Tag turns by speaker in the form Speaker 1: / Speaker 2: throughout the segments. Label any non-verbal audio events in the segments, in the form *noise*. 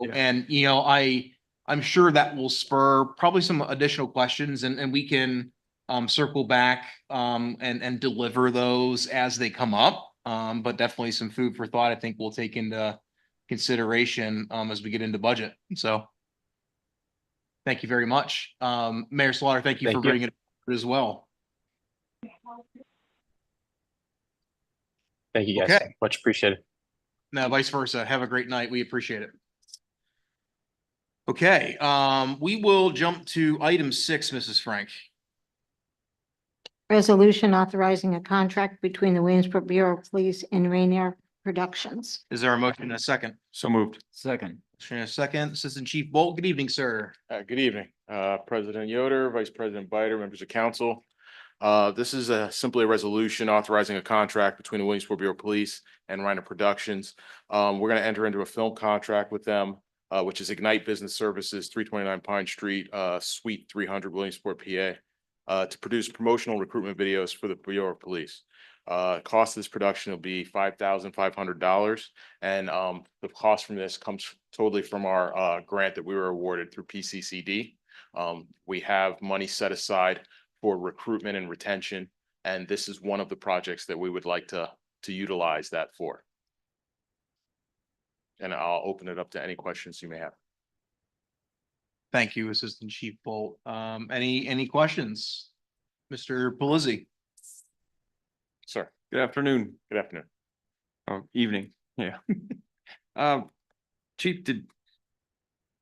Speaker 1: Yeah.
Speaker 2: And, you know, I, I'm sure that will spur probably some additional questions and, and we can um, circle back um, and, and deliver those as they come up. Um, but definitely some food for thought, I think we'll take into consideration um, as we get into budget. So thank you very much. Um, Mayor Slaughter, thank you for
Speaker 3: Thank you.
Speaker 2: bringing it up as well.
Speaker 3: Thank you guys.
Speaker 2: Okay.
Speaker 3: Much appreciated.
Speaker 2: No, vice versa. Have a great night. We appreciate it. Okay, um, we will jump to item six, Mrs. Frank.
Speaker 4: Resolution authorizing a contract between the Williamsport Bureau of Police and Rainier Productions.
Speaker 2: Is there a motion and a second?
Speaker 1: So moved.
Speaker 5: Second.
Speaker 2: Motion and a second. Assistant Chief Bolt, good evening, sir.
Speaker 6: Uh, good evening, uh, President Yoder, Vice President Bider, members of council. Uh, this is a simply a resolution authorizing a contract between the Williamsport Bureau of Police and Reiner Productions. Um, we're gonna enter into a film contract with them, uh, which is Ignite Business Services, three twenty-nine Pine Street, uh, Suite three hundred, Williamsport, PA. Uh, to produce promotional recruitment videos for the Bureau of Police. Uh, cost of this production will be five thousand five hundred dollars. And um, the cost from this comes totally from our uh, grant that we were awarded through PCCD. Um, we have money set aside for recruitment and retention, and this is one of the projects that we would like to, to utilize that for. And I'll open it up to any questions you may have.
Speaker 2: Thank you, Assistant Chief Bolt. Um, any, any questions? Mr. Pelisi,
Speaker 6: Sir,
Speaker 1: Good afternoon
Speaker 6: good afternoon.
Speaker 1: or evening. Yeah. *laughs* Um, Chief, did,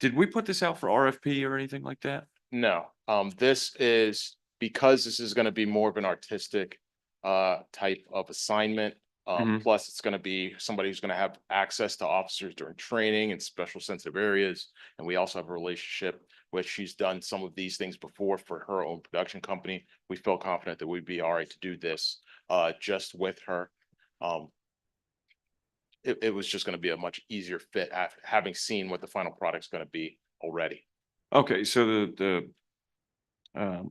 Speaker 1: did we put this out for RFP or anything like that?
Speaker 6: No, um, this is, because this is gonna be more of an artistic uh type of assignment. Um, plus it's gonna be somebody who's gonna have access to officers during training and special sensitive areas. And we also have a relationship where she's done some of these things before for her own production company. We feel confident that we'd be all right to do this uh just with her. Um. It it was just gonna be a much easier fit after having seen what the final product's gonna be already.
Speaker 1: Okay, so the, the, um,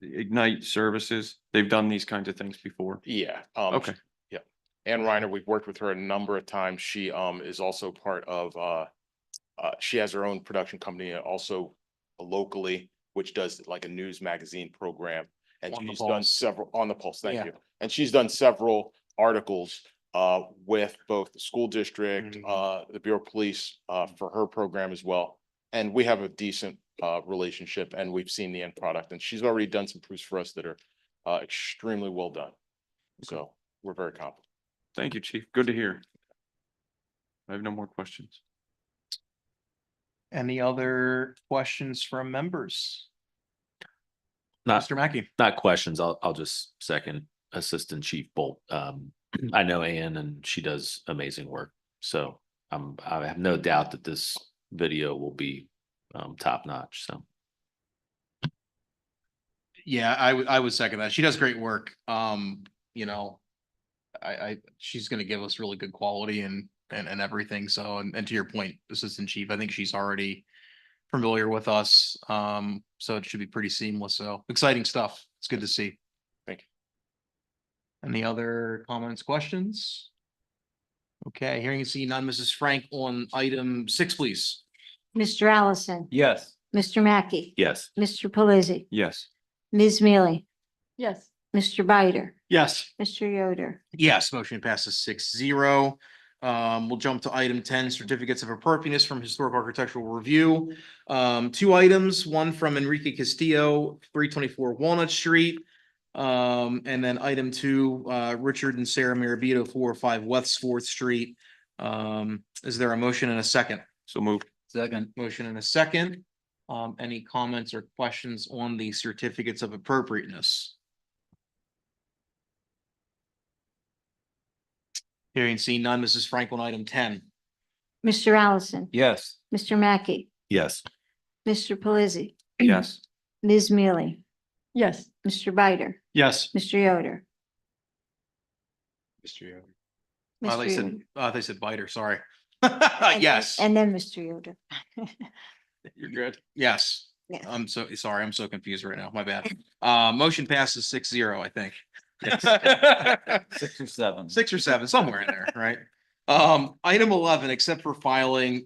Speaker 1: the Ignite Services, they've done these kinds of things before.
Speaker 6: Yeah. um,
Speaker 1: Okay.
Speaker 6: Ann Reiner, we've worked with her a number of times. She um is also part of uh. Uh, she has her own production company uh, also locally, which does like a news magazine program. And
Speaker 2: On the
Speaker 6: she's done
Speaker 2: Pulse.
Speaker 6: several, on the pulse,
Speaker 2: Yeah.
Speaker 6: thank you. And she's done several articles uh with both the school district,
Speaker 2: Mhm.
Speaker 6: uh, the Bureau of Police. Uh, for her program as well. And we have a decent uh relationship and we've seen the end product and she's already done some proofs for us that are uh extremely well done. So we're very confident.
Speaker 1: Thank you, Chief. Good to hear. I have no more questions.
Speaker 2: any other questions from members?
Speaker 1: Uh,
Speaker 3: Not,
Speaker 2: Mr. Mackey,
Speaker 3: not questions. I'll, I'll just second Assistant Chief Bolt. Um,
Speaker 5: Mm-hmm.
Speaker 3: I know Ann and she does amazing work. So I'm, I have no doubt that this video will be um, top notch. So
Speaker 2: yeah, I would, I would second that. She does great work. Um, you know, I, I, she's gonna give us really good quality and, and, and everything. So, and, and to your point, Assistant Chief, I think she's already familiar with us. Um, so it should be pretty seamless. So exciting stuff. It's good to see.
Speaker 6: Thank you.
Speaker 2: Any other comments, questions? Okay, hearing and seeing none. Mrs. Frank on item six, please.
Speaker 4: Mr. Allison,
Speaker 5: Yes.
Speaker 4: Mr. Mackey,
Speaker 3: yes,
Speaker 4: Mr. Pelisi,
Speaker 1: Yes.
Speaker 4: Ms. Mealy,
Speaker 7: Yes.
Speaker 4: Mr. Bider,
Speaker 2: Yes.
Speaker 4: Mr. Yoder.
Speaker 2: Yes, motion passes six zero. Um, we'll jump to item ten, certificates of appropriateness from historic architectural review. Um, two items, one from Enrique Castillo, three twenty-four Walnut Street. Um, and then item two, uh, Richard and Sarah Mirabito, four or five West Fourth Street. Um, is there a motion and a second?
Speaker 1: So moved.
Speaker 5: Second.
Speaker 2: Motion and a second. Um, any comments or questions on the certificates of appropriateness? Hearing seen none, Mrs. Frank on item ten.
Speaker 4: Mr. Allison,
Speaker 5: Yes.
Speaker 4: Mr. Mackey,
Speaker 3: yes,
Speaker 4: Mr. Pelisi,
Speaker 1: Yes.
Speaker 4: *clears throat* Ms. Mealy,
Speaker 7: Yes.
Speaker 4: Mr. Bider,
Speaker 2: Yes.
Speaker 4: Mr. Yoder.
Speaker 6: Mr. Yoder.
Speaker 2: Uh, they
Speaker 4: Mr.
Speaker 2: said,
Speaker 4: Yoder.
Speaker 2: uh, they said biter, sorry. *laughs*
Speaker 4: And then-
Speaker 2: Yes,
Speaker 4: And then Mr. Yoder.
Speaker 1: You're good.
Speaker 2: yes.
Speaker 4: Yes.
Speaker 2: I'm so, sorry, I'm so confused right now. My bad. Uh, motion passes six zero, I think.
Speaker 5: Six or seven.
Speaker 2: *laughs* Six or seven, somewhere in there, right? Um, item eleven, except for filing,